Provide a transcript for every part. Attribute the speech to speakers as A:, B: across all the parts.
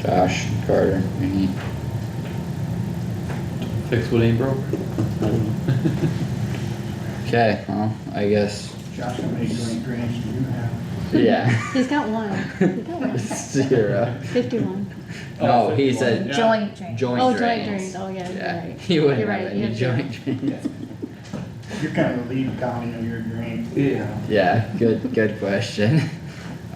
A: Josh, Carter, me.
B: Fix what ain't broke.
A: Okay, well, I guess,
C: Josh, how many green grants do you have?
A: yeah.
D: He's got one. He's got one.
A: Zero.
D: Fifty-one.
A: No, he
C: Yeah.
A: said
E: Joint drain.
D: Oh,
A: joint
D: joint
A: drains.
D: drains, oh, yeah, you're
A: Yeah,
D: right.
A: he wouldn't
D: You're
A: have
D: right, you
A: any
D: have
A: joint drains.
C: You're kind of the lead county of your green.
B: Yeah.
A: Yeah, good, good question.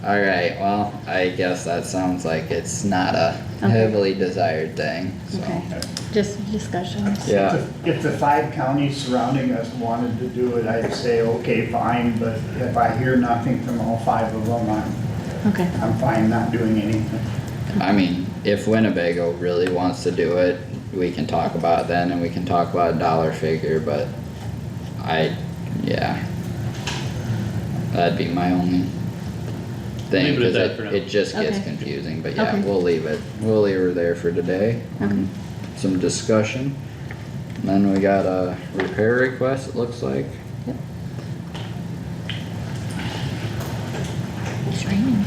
A: Alright, well, I guess that sounds like it's not a
D: Okay.
A: heavily desired thing, so.
D: Okay, just discussions.
A: Yeah,
C: If the five counties surrounding us wanted to do it, I'd say, okay, fine, but if I hear nothing from all five of them, I'm,
D: Okay,
C: I'm fine not doing anything.
A: I mean, if Winnebago really wants to do it, we can talk about it then and we can talk about a dollar figure, but I, yeah. That'd be my only thing,
B: Leave it at
A: cause
B: that
A: it,
B: for now.
A: it just gets
D: Okay.
A: confusing, but yeah,
D: Okay.
A: we'll leave it, we'll leave her there for today. um, Some discussion, And then we got a repair request, it looks like,
E: It's raining.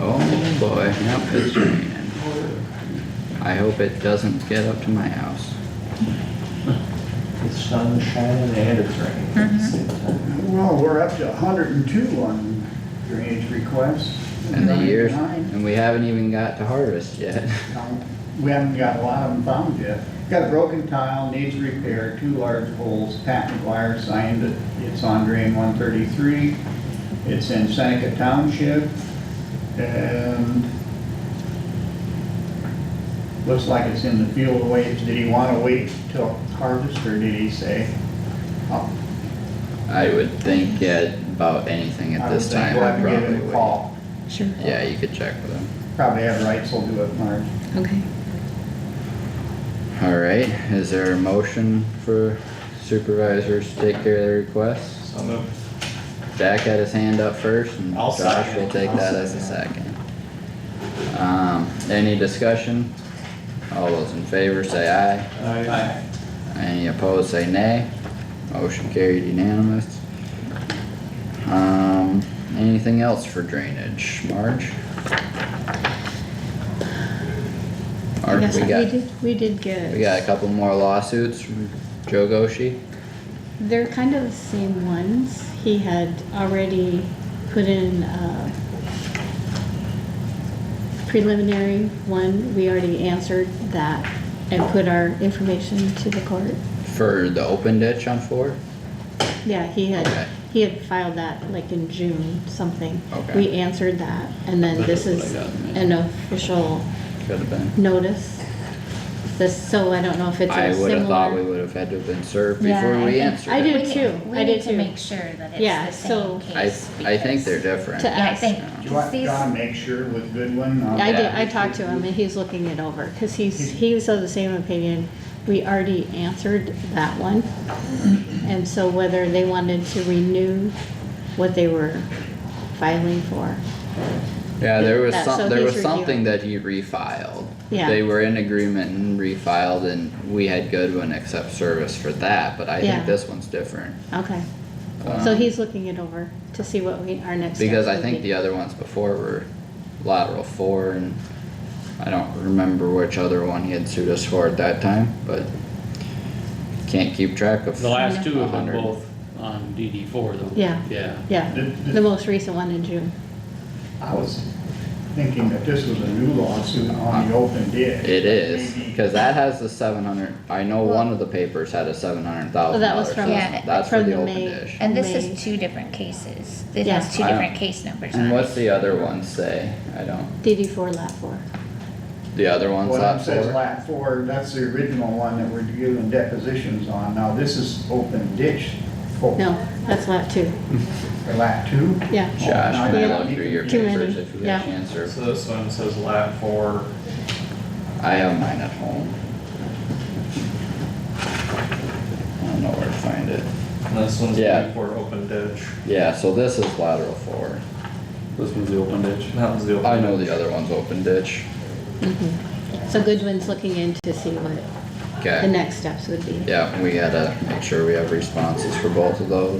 A: oh boy, yep, it's raining. I hope it doesn't get up to my house.
F: It's sun shining and it's raining at the same time.
C: Well, we're up to hundred and two on drainage requests.
A: And the years,
C: 99.
A: and we haven't even got to harvest yet.
C: Um, We haven't got a lot of them found yet. Got a broken tile, needs repair, two large holes. Pat McGuire signed it. It's on drain one thirty-three. It's in Seneca Township and looks like it's in the field of waves. Did he wanna wait till harvest or did he say? "Oh,
A: I would think, yeah, about anything
C: I
A: at
C: would
A: this
C: think
A: time,
C: we'll
A: I
C: have to give
A: probably
C: him a
A: would.
C: call.
E: Sure.
A: Yeah, you could check with them.
C: Probably have rights will do it, Marge.
E: Okay.
A: Alright, is there a motion for supervisors to take care of the requests?
F: So moved.
A: Jack had his hand up first and
F: I'll
A: Josh
F: second
A: will
F: it.
A: take
F: I'll
A: that as a
F: second
A: second. Um, any discussion? All those in favor say aye.
F: Aye.
A: Any opposed, say nay. Motion carried unanimous. Um, anything else for drainage, Marge? Or
D: Yes,
A: we got,
D: did- We did get.
A: we got a couple more lawsuits from Joe Goshi?
D: They're kind of the same ones. He had already put in uh, a preliminary one. We already answered that and put our information to the court.
A: For the open ditch on four?
D: Yeah, he
A: Okay.
D: had, he had filed that like in June, something.
A: Okay.
D: We answered that and then
B: That's
D: this
B: what I
D: is
B: got, yeah.
D: an official
A: Could've been.
D: notice. This, so I don't know if it's
A: I
D: a
A: would've thought we
D: similar.
A: would've had to have been served
D: Yeah,
A: before
D: I
A: we
D: think-
A: answered.
D: I
A: it.
D: did
E: We need-
D: too.
E: We
D: I
E: need
D: did
E: to
D: too.
E: make sure that
D: Yeah,
E: it's the
D: so-
E: same
A: I,
E: case.
A: I think they're
E: because-
A: different.
D: To-
E: Yeah, I think,
C: Do you
E: cause
C: want,
E: these,
C: John, make sure with Goodwin? um,
D: I did,
A: Yeah.
D: I talked to him and he's looking it over, cause he's, he was of the same opinion. We already answered that one. And so whether they wanted to renew what they were filing for.
A: Yeah, there was
D: That-
A: some,
D: so
A: there
D: he's
A: was something
D: reviewing.
A: that he refiled.
D: Yeah.
A: They were in agreement and refiled and we had Goodwin accept service for that, but I
D: Yeah.
A: think this one's different.
D: Okay, so
A: Um,
D: he's looking it over to see what we, our next steps
A: Because I
D: would
A: think
D: be.
A: the other ones before were lateral four and I don't remember which other one he had sued us for at that time, but can't keep track of.
B: The last two have been
A: 100.
B: both on DD four though.
D: Yeah.
B: Yeah.
D: Yeah,
C: Did- did-
D: the most recent one in June.
C: I was thinking that this was a new lawsuit on the open ditch.
A: It is, cause that has the seven hundred, I know one of the papers had a seven hundred thousand
D: Oh, that was
A: dollars.
D: from-
E: Yeah.
A: That's for
D: from
A: the
D: the
A: open
D: May.
A: dish.
E: and this
D: May.
E: is two different cases. It
D: Yeah.
E: has two
A: I don't-
E: different case numbers on it.
A: And what's the other one say? I don't,
D: DD four lap four.
A: the other one's
C: What it
A: lap
C: says
A: four?
C: lap four, that's the original one that we're giving depositions on. Now, this is open ditch. Oh,
D: No, that's lap two.
C: Or lap two?
D: Yeah.
A: Josh,
C: Oh,
A: can
D: Yeah.
A: I look through your
D: Too many.
A: papers if you get
D: Yeah.
A: a chance or,
F: So this one says lap four,
A: I have mine at home. I don't know where to find it.
F: and this one's
A: Yeah.
F: lap four open ditch,
A: Yeah, so this is lateral four.
B: This one's the open ditch.
F: and that one's the open.
A: I know the other one's open ditch.
D: Mm-hmm. So Goodwin's looking in to see what the
A: Okay,
D: next steps would be.
A: yeah, we gotta make sure we have responses for both of those.